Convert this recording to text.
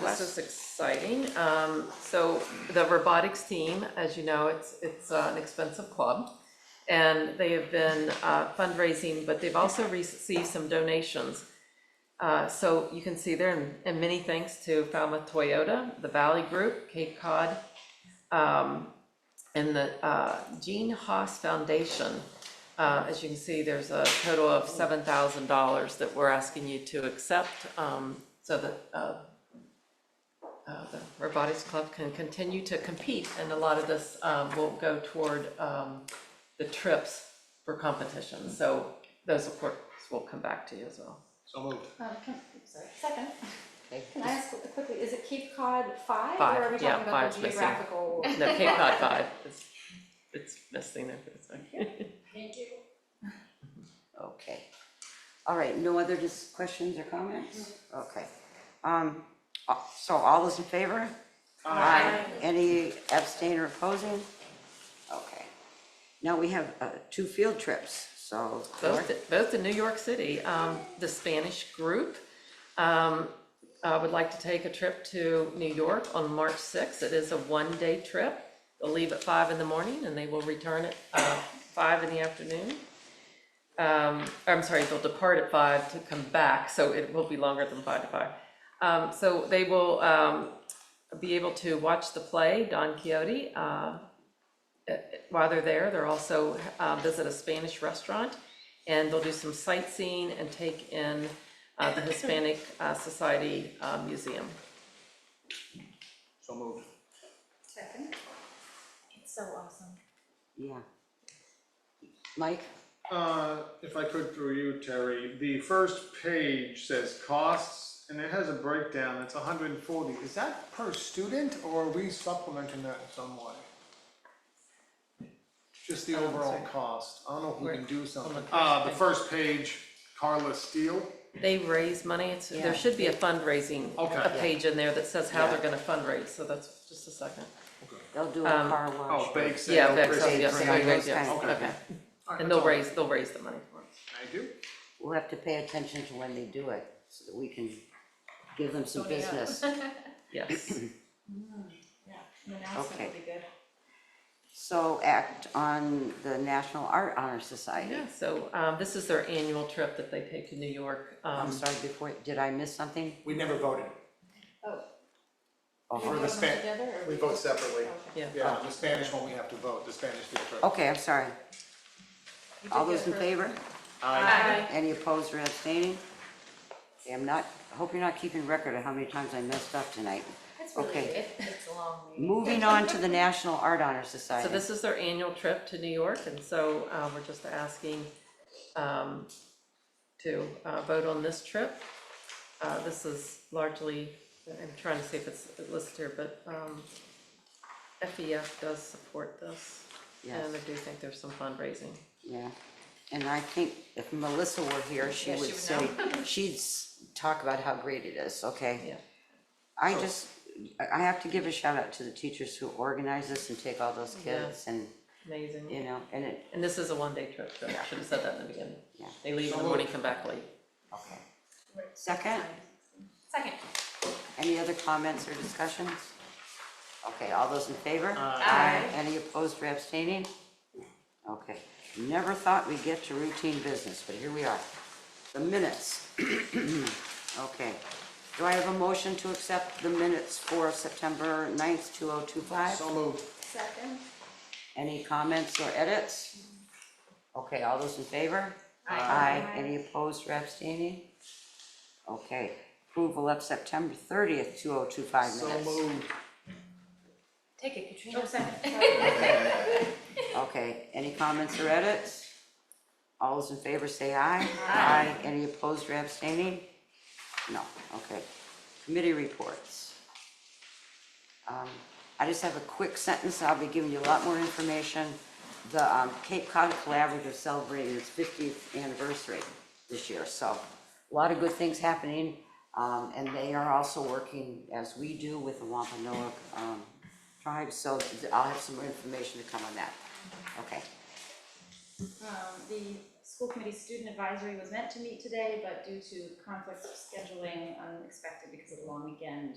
This is exciting. Um, so the robotics team, as you know, it's, it's uh, an expensive club. And they have been uh, fundraising, but they've also received some donations. Uh, so you can see there, and- and many thanks to Falmouth Toyota, the Valley Group, Cape Cod, um, and the, uh, Gene Haas Foundation. Uh, as you can see, there's a total of seven thousand dollars that we're asking you to accept, um, so that, uh, uh, the Robotics Club can continue to compete, and a lot of this, um, will go toward, um, the trips for competition, so those, of course, will come back to you as well. So moved. Um, can, sorry, second. Can I ask quickly, is it Cape Cod five? Five, Or are we yeah, talking about five's the missing. geographical? No, Cape Cod Five, it's, it's missing there for a second. Thank you. Okay. All right, no other just questions or comments? Okay. Um, uh, so all those in favor? Aye. Any abstain or opposing? Okay. Now we have, uh, two field trips, so. both, both in New York City. Um, the Spanish group, um, uh, would like to take a trip to New York on March sixth. It is a one-day trip. They'll leave at five in the morning and they will return at, uh, five in the afternoon. Um, I'm sorry, they'll depart at five to come back, so it will be longer than five to five. Um, so they will, um, be able to watch the play Don Quixote, uh, while they're there, they're also, uh, visit a Spanish restaurant, and they'll do some sightseeing and take in, uh, the Hispanic, uh, Society, uh, Museum. So moved. Second. It's so awesome. Yeah. Mike? Uh, if I could through you, Terry, the first page says costs, and it has a breakdown, it's hundred and forty. Is that per student, or are we supplementing that in some way? Just the overall cost, I don't know if we can do something. Uh, the first page, Carla Steele, They raise money, it's, there should be a fundraising, a Okay. page in there that says how they're gonna fundraice, so that's just a second. They'll do a car wash. oh, bake Yeah, sale, that's, Christmas yeah, yeah, tree. yeah, All right, those yes, yes, kinds of things. okay. that's And they'll all. raise, they'll raise the money for us. Thank you. We'll have to pay attention to when they do it, so that we can give them some business. Yes, Yeah, an announcement Okay. would be good. So act on the National Art Honor Society. yeah, so, um, this is their annual trip that they take to New York. I'm Um, sorry, before, did I miss something? We never voted. Oh. Oh, Do you for the vote on span- together, or we vote separately. Okay. yeah, Yeah, Uh, the Spanish one, we have to vote, the Spanish field trip. Okay, I'm sorry. You All did those in good favor? Aye. Any opposed or abstaining? Okay, I'm not, I hope you're not keeping record of how many times I messed up tonight. That's really Okay. good. It- It's a long meeting. Moving on to the National Art Honor Society. So this is their annual trip to New York, and so uh, we're just asking um, to uh, vote on this trip. Uh, This is largely, I'm trying to see if it's listed here, but um, FEF does support this. Yes. And I do think there's some fundraising. Yeah, and I think if Melissa were here, she Yeah, she would would say, she'd s- talk about how great it is, okay? Yeah. I just, I I have to give a shout out to the teachers who organize this and take all those kids and, Amazing. you know, and it, And this is a one-day trip, so I should have said that in the beginning. Yeah. They leave in the morning, come back late. okay. Second, Second. any other comments or discussions? Okay, all those in favor? Aye. Any opposed or abstaining? Okay, never thought we'd get to routine business, but here we are. The minutes. Okay, do I have a motion to accept the minutes for September 9th, two oh two five? So moved. Second. Any comments or edits? Okay, all those in favor? Aye. Any opposed or abstaining? Okay, approval of September thirtieth, two oh two five So minutes. moved. Take it, Katrina. Oh, second. Okay, any comments or edits? All those in favor say aye. Aye. Any opposed or abstaining? No, okay. Committee reports. Um, I just have a quick sentence, I'll be giving you a lot more information. The um, Cape Cod Collaborative celebrated its fiftieth anniversary this year, so a lot of good things happening. Um, and they are also working, as we do, with the Wampanoag, um, tribe, so I'll have some more information to come on that. Okay, Um, the school committee student advisory was meant to meet today, but due to conflicts of scheduling, unexpected because of the long weekend,